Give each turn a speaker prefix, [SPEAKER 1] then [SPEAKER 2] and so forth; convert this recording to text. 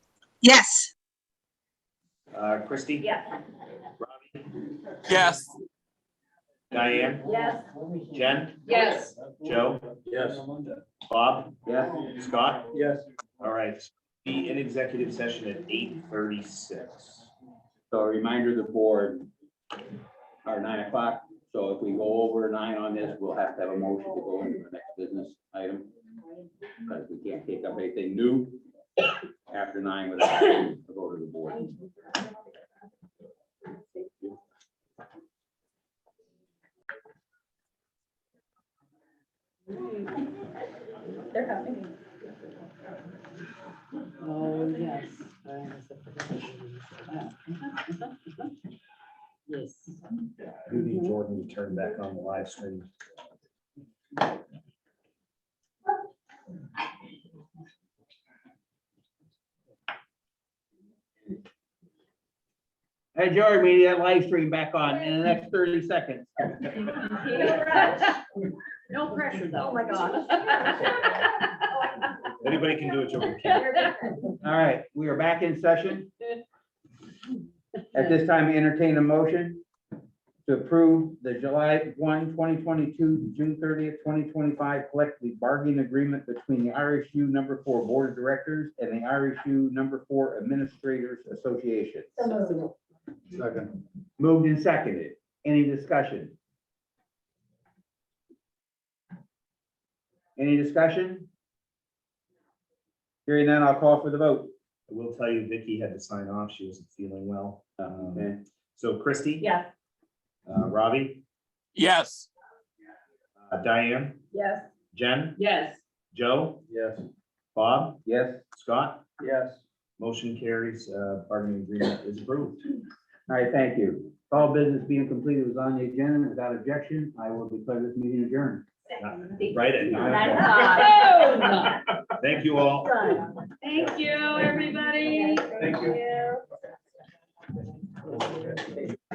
[SPEAKER 1] Yes,
[SPEAKER 2] Uh, Christie?
[SPEAKER 3] Yes.
[SPEAKER 2] Robbie?
[SPEAKER 4] Yes,
[SPEAKER 2] Diane?
[SPEAKER 3] Yes.
[SPEAKER 2] Jen?
[SPEAKER 3] Yes.
[SPEAKER 2] Joe?
[SPEAKER 5] Yes.
[SPEAKER 2] Bob?
[SPEAKER 5] Yes.
[SPEAKER 2] Scott?
[SPEAKER 5] Yes.
[SPEAKER 2] All right, be in executive session at eight thirty-six.
[SPEAKER 5] So a reminder to the board, our nine o'clock, so if we go over nine on this, we'll have to have a motion to go into the next business item. Because we can't take up anything new after nine without a vote of the board.
[SPEAKER 3] They're coming.
[SPEAKER 6] Oh, yes. Uh, it's a provision. Uh, Yes.
[SPEAKER 7] We need Jordan to turn back on the live stream.
[SPEAKER 5] Hey, George, we need that live stream back on in the next thirty seconds.
[SPEAKER 3] No pressure, though.
[SPEAKER 6] Oh, my
[SPEAKER 3] gosh.
[SPEAKER 2] Anybody can do it, Joe.
[SPEAKER 5] All right, we are back in session. At this time, I entertain a motion to approve the July 1, 2022, to June thirtieth, twenty twenty-five collective bargaining agreement between the RSU number four Board of Directors and the RSU number four Administrators Association.
[SPEAKER 7] Second.
[SPEAKER 5] Moved and seconded. Any discussion? Any discussion? Hearing none, I'll call for the vote.
[SPEAKER 2] I will tell you, Vicky had to sign off. She wasn't feeling well. Um,
[SPEAKER 5] Okay.
[SPEAKER 2] So Christie?
[SPEAKER 3] Yes.
[SPEAKER 2] Uh, Robbie?
[SPEAKER 4] yes,
[SPEAKER 2] Uh, Diane?
[SPEAKER 3] Yes.
[SPEAKER 2] Jen?
[SPEAKER 6] Yes.
[SPEAKER 2] Joe?
[SPEAKER 7] Yes.
[SPEAKER 2] Bob?
[SPEAKER 5] Yes.
[SPEAKER 2] Scott?
[SPEAKER 7] Yes.
[SPEAKER 2] Motion carries, uh, bargaining agreement is approved.
[SPEAKER 5] All right, thank you. All business being completed was on the agenda. Without objection, I will declare this meeting adjourned.
[SPEAKER 2] Right at nine. o'clock.
[SPEAKER 3] That's
[SPEAKER 2] Thank you all.
[SPEAKER 3] Thank you, everybody.
[SPEAKER 2] Thank you.